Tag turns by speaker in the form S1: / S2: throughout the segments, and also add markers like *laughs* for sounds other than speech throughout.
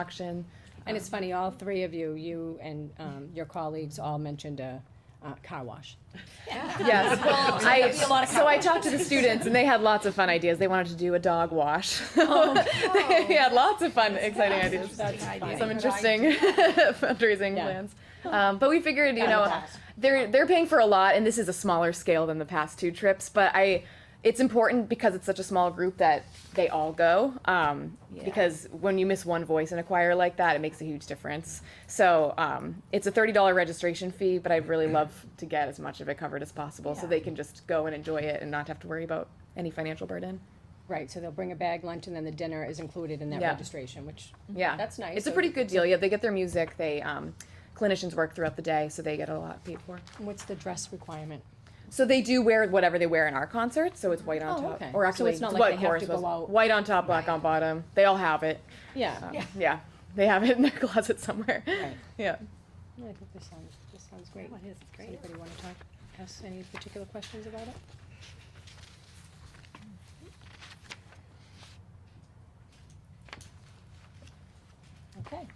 S1: auction.
S2: And it's funny, all three of you, you and um, your colleagues all mentioned a uh, car wash. *laughs*
S1: Yes.
S2: there'll be a
S1: I,
S2: lot of
S1: so I talked to the students and they had lots of fun ideas. They wanted to do a dog wash.
S2: Oh,
S1: *laughs* They had lots of fun, exciting ideas. Some interesting *laughs* fundraising
S2: Yeah.
S1: plans. Um, but we figured, you know,
S2: that's-
S1: they're, they're paying for a lot and this is a smaller scale than the past two trips, but I, it's important because it's such a small group that they all go. Um, because when you miss one voice in a choir like that, it makes a huge difference. So, um, it's a thirty dollar registration fee, but I'd really love to get as much of it covered as possible so
S3: Yeah.
S1: they can just go and enjoy it and not have to worry about any financial burden.
S2: Right, so they'll bring a bag lunch and then the dinner is included in that
S1: Yeah.
S2: registration, which,
S1: Yeah.
S2: that's nice.
S1: It's a
S2: So
S1: pretty good deal. Yeah, they get their music, they, um, clinicians work throughout the day, so they get a lot paid for.
S2: What's the dress requirement?
S1: So they do wear whatever they wear in our concert, so it's white on
S2: Oh,
S1: top,
S2: okay.
S1: or
S2: So
S1: actually,
S2: it's not like
S1: what
S2: they have to
S1: chorus
S2: go
S1: was
S2: out-
S1: white on top, black on bottom. They all have it.
S2: Yeah.
S1: Um, yeah. they have it in their *laughs* closet somewhere.
S2: Right.
S1: Yeah.
S2: No, I think this sounds, this sounds great.
S3: Oh, it is. It's
S2: Does
S3: great.
S2: anybody want to talk, ask any particular questions about it? Okay.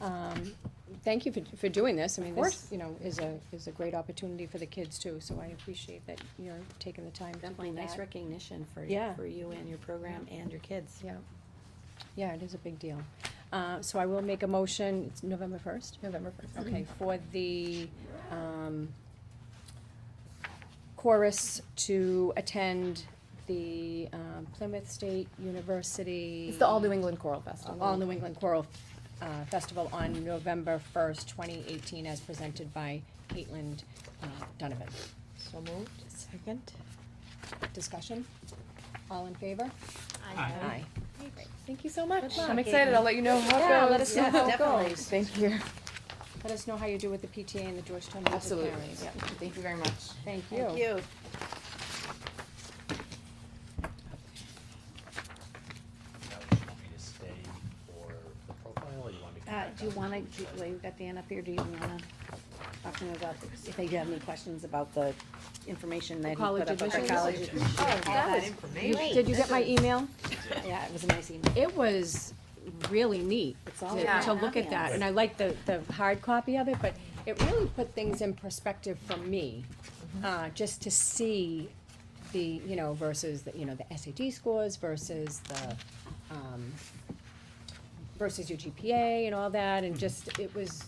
S2: Um, Thank you for, for doing this. I mean, this,
S1: course.
S2: you know, is a, is a great opportunity for the kids too, so I appreciate that you're taking the time to do that.
S3: Definitely nice recognition for,
S2: Yeah.
S3: for you and your program and your kids.
S1: Yeah.
S2: Yeah, it is a big deal. Uh, So I will make a motion, it's November first?
S1: November first.
S2: Okay, for the um, chorus to attend the um, Plymouth State University.
S1: It's the All New England Choral Festival.
S2: All New England Choral uh, Festival on November first, twenty eighteen, as presented by Caitlin uh, Donovan.
S3: So moved. Second.
S2: Discussion? All in favor? Aye.
S1: Thank you so much.
S3: luck,
S1: I'm excited.
S3: Caitlin.
S1: I'll let you know how it
S2: Yeah,
S1: goes.
S2: let us know
S1: Yeah, *laughs*
S2: how it
S1: definitely.
S2: goes.
S1: Thank you.
S2: Let us know how you do with the PTA and the Georgetown Music Parents.
S1: Yeah. Thank you very much.
S2: Thank you.
S3: Thank you.
S4: Now, do you want me to stay for the profile, or you want me to? come
S3: Uh,
S4: back
S3: do you
S4: up?
S3: wanna, do- well, you've got Dan up here, do you wanna talk to him about, the- if they do have any questions about the information that he
S2: college
S3: put up about
S2: admissions?
S3: college? admissions? All that
S2: You-
S3: information.
S2: Did you get my email?
S3: Yeah, it was a nice email.
S2: It was really neat
S3: It's all
S2: to,
S1: about
S2: to look at that,
S3: ambience.
S2: and I like the, the hard copy of it, but it really put things in perspective for me, uh, just to see the, you know, versus, the you know, the SAT scores versus the, um, versus your GPA and all that, and just, it was,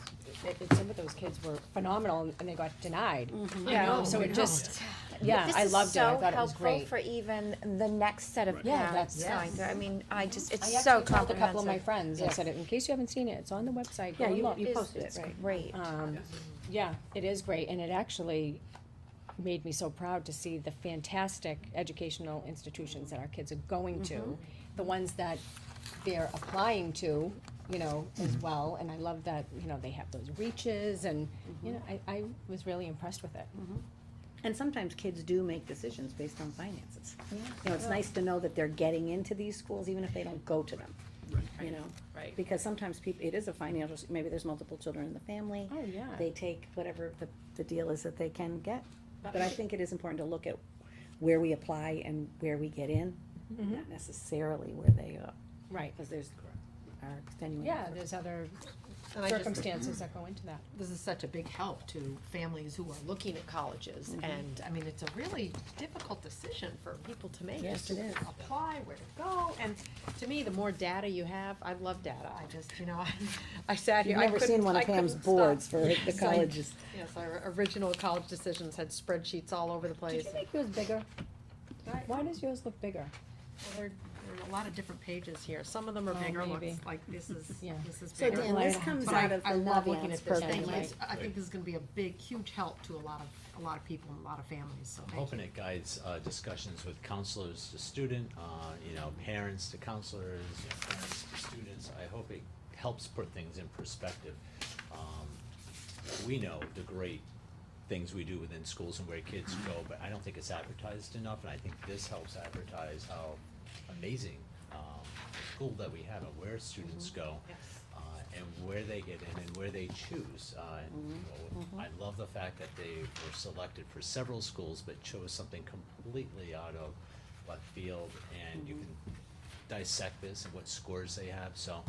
S2: it, it- some of those kids were phenomenal, and they got denied.
S3: Mm-hmm.
S5: I
S2: Yeah, Oh,
S5: know,
S2: so
S5: I
S2: it
S5: know.
S2: just, yeah, I loved it, I thought it was
S5: This is
S2: great.
S5: so helpful for even the next set of
S2: Yeah,
S5: parents
S2: that's-
S5: going through, I mean, I just,
S2: I
S5: it's so
S2: actually called a
S5: comprehensive.
S2: couple of my friends, I said, in case you haven't seen it, it's on the website, go
S3: Yeah,
S2: and
S3: you,
S2: look."
S3: you
S5: It's-
S3: posted it,
S5: it's
S3: right?
S5: Great.
S2: Um, yeah, it is great, and it actually made me so proud to see the fantastic educational institutions that our kids are going to, the ones that they're applying to, you know, as well, and I love that, you know, they have those reaches, and, you know, I, I was really impressed with it.
S3: And sometimes kids do make decisions based on finances. You know, it's nice to know that they're getting into these schools, even if they don't go to them, you know?
S1: Right.
S3: Because sometimes people, it is a financial, s- maybe there's multiple children in the family.
S2: Oh, yeah.
S3: They take whatever the, the deal is that they can get. But I think it is important to look at where we apply and where we get in, not necessarily where they are,
S2: Right,
S3: because there's our extenuating.
S2: yeah,
S3: circumstances.
S2: there's other
S6: And I just,
S2: circumstances that go into that.
S6: this is such a big help to families who are looking at colleges,
S3: Mm-hmm.
S6: and, I mean, it's a really difficult decision for people to make.
S3: Yes,
S6: to
S3: it is.
S6: Apply, where to go, and to me, the more data you have, I love data, I just, you know, *laughs* I, I sat here,
S3: You've
S6: I
S3: never
S6: couldn't,
S3: seen one
S6: I
S3: of Pam's
S6: couldn't
S3: boards
S6: stop.
S3: for the
S6: So I-
S3: colleges.
S6: Yes, our original college decisions had spreadsheets all over the
S2: Did
S6: place.
S2: you make yours bigger?
S6: Right.
S2: Why does yours look bigger?
S6: Well, There there are a lot of different pages here, some of them are
S2: Oh,
S6: bigger
S2: maybe.
S6: ones, like this is,
S2: *laughs* Yeah.
S6: this is
S3: So
S6: bigger.
S3: Dan, this
S2: But
S3: comes
S6: But
S3: out
S6: I,
S3: of the
S6: I love looking
S3: Naviance
S6: at this,
S3: program,
S6: and
S3: right?
S6: it's- I think this is gonna be a big, huge help to a lot of, a lot of people and a lot of families, so
S4: I'm
S6: thank you.
S4: hoping it guides uh, discussions with counselors to student, uh, you know, parents to counselors, you know, parents to students. I hope it helps put things in perspective. Um, We know the great things we do within schools and where kids go, but I don't think it's advertised enough, and I think this helps advertise how amazing um, the school that we have and where students
S3: Mm-hmm.
S4: go uh, and where they get in and where they choose. Uh, and, you know, I love the fact that they were selected for several schools but chose something completely out of left field, and you can dissect this and what scores they have. So